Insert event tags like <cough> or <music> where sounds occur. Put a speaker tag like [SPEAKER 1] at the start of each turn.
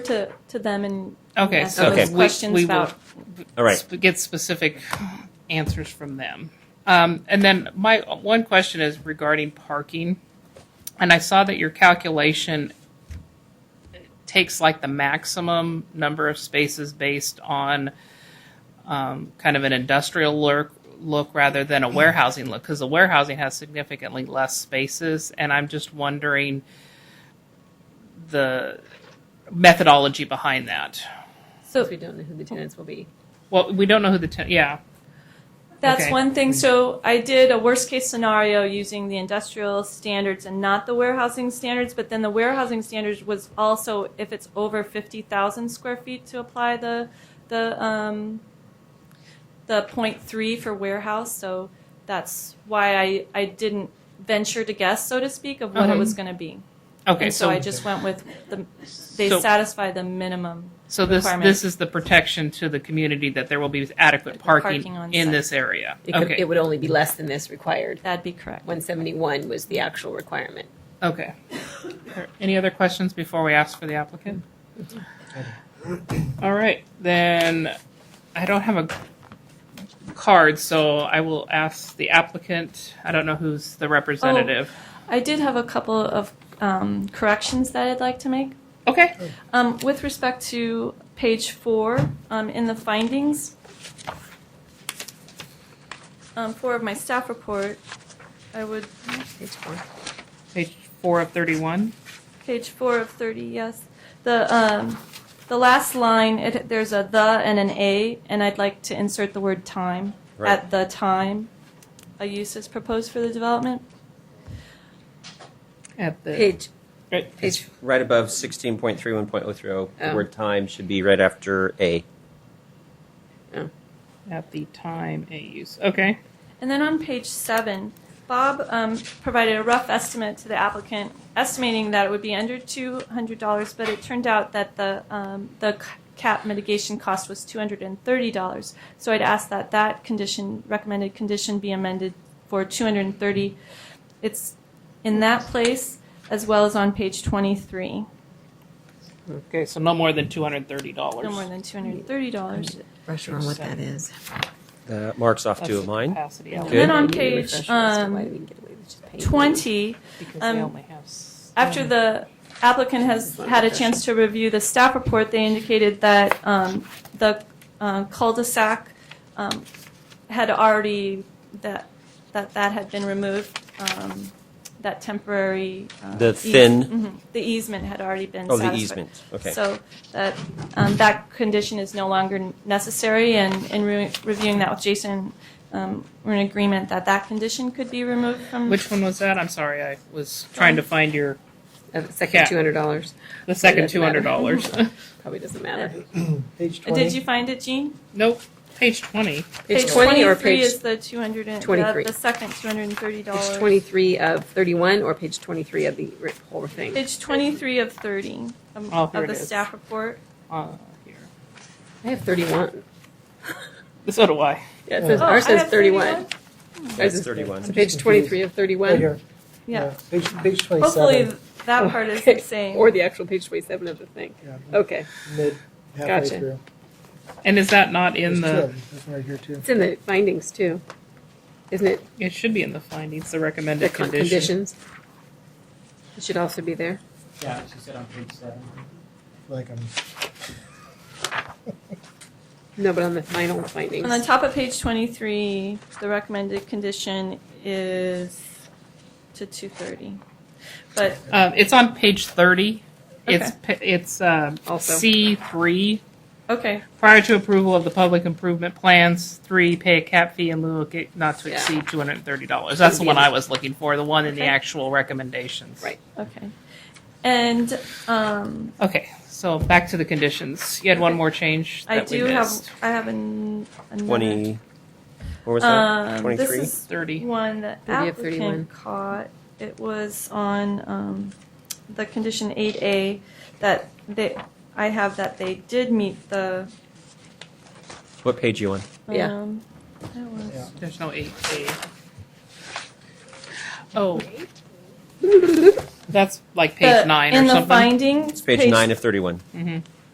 [SPEAKER 1] to, to them and
[SPEAKER 2] Okay,
[SPEAKER 1] ask
[SPEAKER 2] so
[SPEAKER 1] those
[SPEAKER 2] we-
[SPEAKER 1] questions
[SPEAKER 2] we will-
[SPEAKER 1] about.
[SPEAKER 3] All right.
[SPEAKER 2] sp- get specific answers from them. Um, and then my one question is regarding parking. And I saw that your calculation takes like the maximum number of spaces based on um, kind of an industrial look, look rather than a warehousing look, because the warehousing has significantly less spaces. And I'm just wondering the methodology behind that.
[SPEAKER 1] So
[SPEAKER 4] we don't know who the tenants will be.
[SPEAKER 2] Well, we don't know who the ten- yeah.
[SPEAKER 1] that's
[SPEAKER 2] okay. Mm-hmm.
[SPEAKER 1] one thing. So I did a worst case scenario using the industrial standards and not the warehousing standards, but then the warehousing standards was also if it's over 50,000 square feet to apply the, the, um, the point three for warehouse. So that's why I, I didn't venture to guess, so to speak, of what it
[SPEAKER 2] Uh-huh.
[SPEAKER 1] was going to be.
[SPEAKER 2] Okay,
[SPEAKER 1] and so, I just went with the, they
[SPEAKER 2] So-
[SPEAKER 1] satisfy the minimum.
[SPEAKER 2] So this,
[SPEAKER 1] requirement.
[SPEAKER 2] this is the protection to the community that there will be adequate
[SPEAKER 1] Parking
[SPEAKER 2] parking
[SPEAKER 1] on
[SPEAKER 2] in
[SPEAKER 1] site.
[SPEAKER 2] this area?
[SPEAKER 4] It, could,
[SPEAKER 2] Okay,
[SPEAKER 4] it would only be less than this required.
[SPEAKER 1] That'd be correct.
[SPEAKER 4] 171 was the actual requirement.
[SPEAKER 2] okay. Are- Any other questions before we ask for the applicant? All right, then, I don't have a card, so I will ask the applicant, I don't know who's the representative.
[SPEAKER 1] I did have a couple of um, corrections that I'd like to make.
[SPEAKER 2] Okay,
[SPEAKER 1] Um, with respect to page four um, in the findings, um, four of my staff report, I would,
[SPEAKER 2] page four of thirty-one,
[SPEAKER 1] page four of 30, yes. The, um, the last line, it, there's a the and an a, and I'd like to insert the word time.
[SPEAKER 3] Right.
[SPEAKER 1] At the time a use is proposed for the development.
[SPEAKER 2] at the,
[SPEAKER 4] Page,
[SPEAKER 2] right,
[SPEAKER 4] page,
[SPEAKER 3] Right above 16.31.030, the
[SPEAKER 4] Oh.
[SPEAKER 3] word time should be right after A.
[SPEAKER 2] at the time a use, okay,
[SPEAKER 1] And then on page seven, Bob um, provided a rough estimate to the applicant, estimating that it would be under two hundred dollars, but it turned out that the um, the c- cap mitigation cost was two hundred and thirty dollars. So I'd ask that that condition, recommended condition, be amended for two hundred and thirty. It's in that place as well as on page twenty-three,
[SPEAKER 2] okay, so no more than two hundred and thirty dollars.
[SPEAKER 1] no more than two hundred and thirty dollars.
[SPEAKER 5] brush on what that is.
[SPEAKER 3] That marks off two of mine.
[SPEAKER 2] Capacity
[SPEAKER 1] And then
[SPEAKER 3] Good.
[SPEAKER 1] on
[SPEAKER 4] Maybe
[SPEAKER 1] page
[SPEAKER 4] refresh us to why
[SPEAKER 1] um,
[SPEAKER 4] we can get away with just paying.
[SPEAKER 1] twenty,
[SPEAKER 2] because
[SPEAKER 1] Um,
[SPEAKER 2] they only have. s-
[SPEAKER 1] After the applicant has had a chance to review the staff report, they indicated that um, the uh, cul-de-sac um, had already, that, that that had been removed, um, that temporary. uh,
[SPEAKER 3] The
[SPEAKER 1] eas-
[SPEAKER 3] thin-
[SPEAKER 1] Mhm. The easement had already been
[SPEAKER 3] Oh,
[SPEAKER 1] satisfied.
[SPEAKER 3] the easement. Okay.
[SPEAKER 1] So that, um, that condition is no longer necessary, and in re- reviewing that with Jason, um, we're in agreement that that condition could be removed from.
[SPEAKER 2] Which one was that? I'm sorry, I was trying to find your,
[SPEAKER 4] Uh, the second
[SPEAKER 2] Yeah.
[SPEAKER 4] $200
[SPEAKER 2] the second
[SPEAKER 4] Doesn't
[SPEAKER 2] two hundred
[SPEAKER 4] matter.
[SPEAKER 2] dollars. <laughs>
[SPEAKER 4] probably doesn't matter.
[SPEAKER 6] Page twenty.
[SPEAKER 1] Uh, Did you find it, Jean?
[SPEAKER 2] Nope, page twenty.
[SPEAKER 4] Page 20 or
[SPEAKER 1] 23
[SPEAKER 4] page-
[SPEAKER 1] is the 200 and, the,
[SPEAKER 4] 23.
[SPEAKER 1] the second $230.
[SPEAKER 4] Page 23 of 31 or page 23 of the ri- whole thing?
[SPEAKER 1] Page 23 of 30 um,
[SPEAKER 2] Oh,
[SPEAKER 1] of
[SPEAKER 2] here
[SPEAKER 1] the
[SPEAKER 2] it is.
[SPEAKER 1] staff report.
[SPEAKER 2] Uh, here.
[SPEAKER 4] I have 31.
[SPEAKER 2] So do I.
[SPEAKER 4] Yeah, it says,
[SPEAKER 1] Oh,
[SPEAKER 4] ours
[SPEAKER 1] I
[SPEAKER 4] says
[SPEAKER 1] have
[SPEAKER 4] 31.
[SPEAKER 3] That's
[SPEAKER 4] Ours is-
[SPEAKER 3] 31.
[SPEAKER 4] Page 23 of
[SPEAKER 6] Right
[SPEAKER 4] 31.
[SPEAKER 6] here.
[SPEAKER 1] Yeah.
[SPEAKER 6] Page, page
[SPEAKER 1] Hopefully
[SPEAKER 6] twenty-seven,
[SPEAKER 1] that part is the
[SPEAKER 4] Okay.
[SPEAKER 1] same.
[SPEAKER 4] Or the actual page 27 of the thing.
[SPEAKER 6] Yeah.
[SPEAKER 4] Okay.
[SPEAKER 6] mid, halfway
[SPEAKER 4] Gotcha.
[SPEAKER 6] through.
[SPEAKER 2] And is that not in
[SPEAKER 6] There's two
[SPEAKER 2] the,
[SPEAKER 6] of them. There's one right here too.
[SPEAKER 4] It's in the findings too, isn't it?
[SPEAKER 2] it should be in the findings, the
[SPEAKER 4] The
[SPEAKER 2] recommended
[SPEAKER 4] con-
[SPEAKER 2] condition.
[SPEAKER 4] conditions. It should also be there.
[SPEAKER 7] Yeah, she said on page seven.
[SPEAKER 6] Like um, I'm,
[SPEAKER 4] No, but on the final findings.
[SPEAKER 1] On the top of page 23, the recommended condition is to 230. But
[SPEAKER 2] Uh, it's on page thirty. It's, pa- it's, um,
[SPEAKER 4] Also.
[SPEAKER 2] C three.
[SPEAKER 1] okay,
[SPEAKER 2] Prior to approval of the public improvement plans, three, pay a cap fee in lieu of ga- not to
[SPEAKER 4] Yeah.
[SPEAKER 2] exceed two hundred and thirty dollars. That's the one I was looking for, the one in the
[SPEAKER 1] Okay.
[SPEAKER 2] actual recommendations.
[SPEAKER 4] Right.
[SPEAKER 1] okay. And um,
[SPEAKER 2] Okay, so back to the conditions. You had one more change
[SPEAKER 1] I
[SPEAKER 2] that we
[SPEAKER 1] do have,
[SPEAKER 2] missed.
[SPEAKER 1] I have an, another.
[SPEAKER 3] 20. What was that?
[SPEAKER 1] Um, uh, this
[SPEAKER 3] 23?
[SPEAKER 1] is
[SPEAKER 2] Thirty.
[SPEAKER 1] one that
[SPEAKER 4] 30 of 31.
[SPEAKER 1] applicant caught. It was on um, the condition 8A that they, I have that they did meet the.
[SPEAKER 3] What page you on?
[SPEAKER 4] Yeah.
[SPEAKER 1] um, that was-
[SPEAKER 6] yeah.
[SPEAKER 2] There's no eight A. Oh,
[SPEAKER 8] That's like page
[SPEAKER 2] The-
[SPEAKER 8] nine or
[SPEAKER 2] in
[SPEAKER 8] something.
[SPEAKER 2] the findings,
[SPEAKER 1] It's page nine of thirty-one.
[SPEAKER 8] Mhm.